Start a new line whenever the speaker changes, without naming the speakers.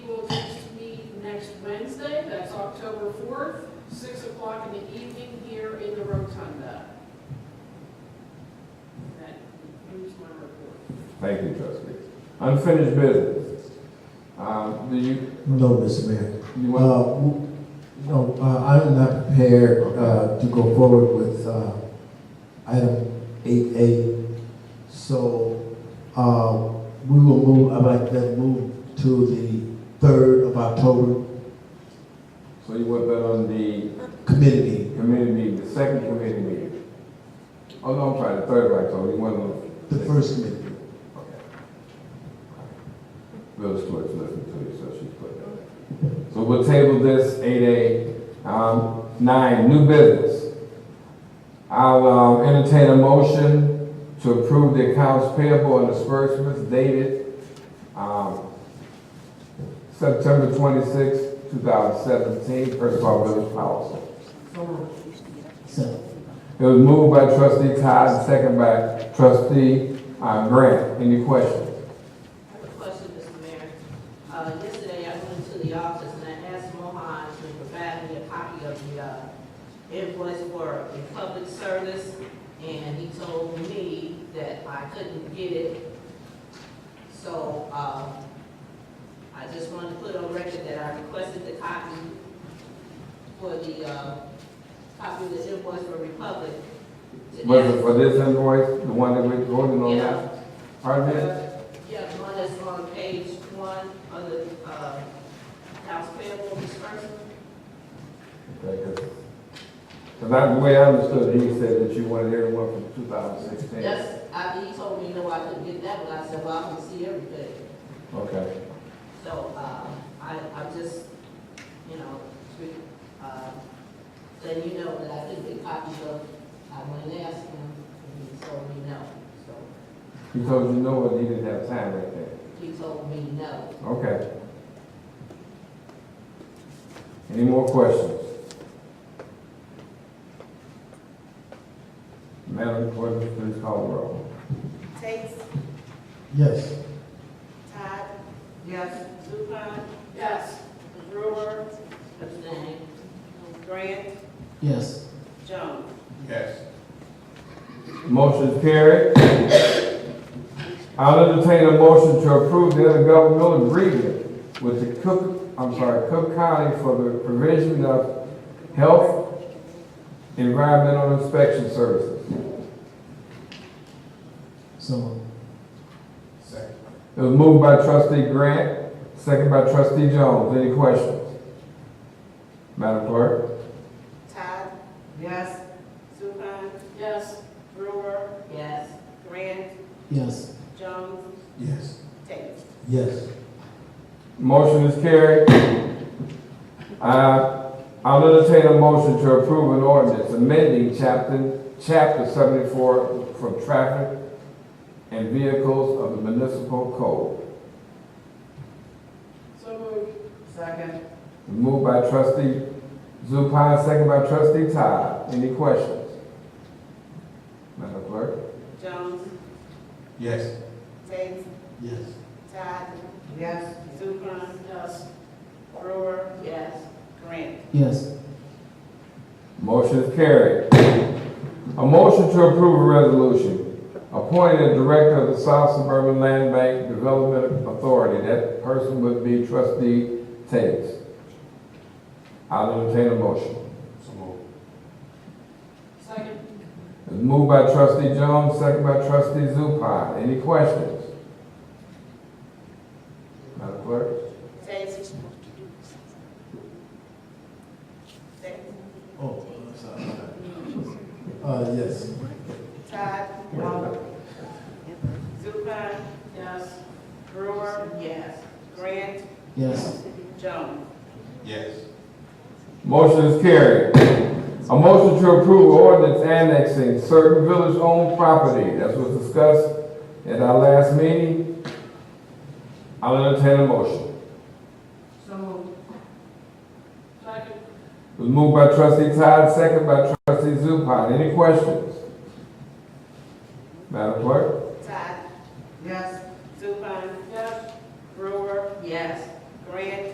Wednesday, that's October 4th, 6 o'clock in the evening here in the rotunda. That concludes my report.
Thank you, trustee. Unfinished business. Um, do you,
No, Mr. Mayor.
you want,
Uh, w- No, uh, I'm not prepared uh, to go forward with uh, item 8A. So uh, we will move, I'd like to move to the 3rd of October
so you want that on the
committee meeting.
committee meeting, the second committee meeting? Oh, no, I'm sorry, the third, right, so you want on?
the first committee. meeting.
Okay. Village clerk's listening to you, so she's put that. So we'll table this, eight A, um, nine, new business. I'll, um, entertain a motion to approve the accounts payable and disbursements dated, um, September twenty-sixth, two thousand seventeen, first of all, village policy.
So,
It was moved by trustee Todd, and second by trustee, uh, Grant. Any questions?
I have a question, Mr. Mayor. Uh, yesterday I went to the office and I asked Mohan to provide me a copy of the, uh, invoice for the public service. And he told me that I couldn't get it. So, uh, I just wanted to put on record that I requested the copy for the, uh, copy of the invoice for Republic. to
Was it
ask-
for this invoice, the one that we're voting on
Yeah.
now? Pardon me?
Yeah, the one that's on page one of the, uh, house payable dispersment.
Because I, the way I understood, it, he said that you wanted everyone from two thousand sixteen.
That's, I, he told me, no, I couldn't get that one, I said, well, I can see everything.
Okay,
So, uh, I, I'm just, you know, to, uh, letting you know that I couldn't get copies of, I went and asked him, and he told me no. So,
he told you no, and he didn't have time right there.
he told me no.
Okay. Any more questions? Madam Clerk, please call the roll.
Tate,
yes,
Todd,
Yes.
Zupan,
Yes,
Brewer,
Abstain.
Grant,
yes,
Jones.
Yes. Motion carried. I'll entertain a motion to approve the intergovernmental agreement with the Cook, I'm sorry, Cook County for the provision of health environmental inspection services.
so,
It was moved by trustee Grant, second by trustee Jones. Any questions? Madam Clerk?
Todd. Yes. Zupan,
yes,
Brewer,
Yes.
Grant,
yes,
Jones,
yes,
Tate.
yes,
Motion is carried. Uh, I'll entertain a motion to approve an ordinance amending chapter, chapter seventy-four from traffic and vehicles of the municipal code.
so moved. Second.
Moved by trustee Zupan, second by trustee Todd. Any questions? Madam Clerk?
Jones,
Yes.
Tate,
yes,
Todd. Yes. Zupan,
Yes,
Brewer,
Yes.
Grant.
yes,
Motion is carried. A motion to approve a resolution appointing a director of the South Suburban Land Bank Development Authority. That person would be trustee Tate. I'll entertain a motion.
second.
It's moved by trustee Jones, second by trustee Zupan. Any questions? Madam Clerk?
Tate. Tate.
oh, I'm sorry. Uh, yes.
Todd. Zupan,
Yes,
Brewer,
Yes.
Grant,
Yes,
Jones.
Yes. Motion is carried. A motion to approve ordinance annexing certain village-owned property, that was discussed at our last meeting. I'll entertain a motion.
So moved.
second.
It was moved by trustee Todd, second by trustee Zupan. Any questions? Madam Clerk?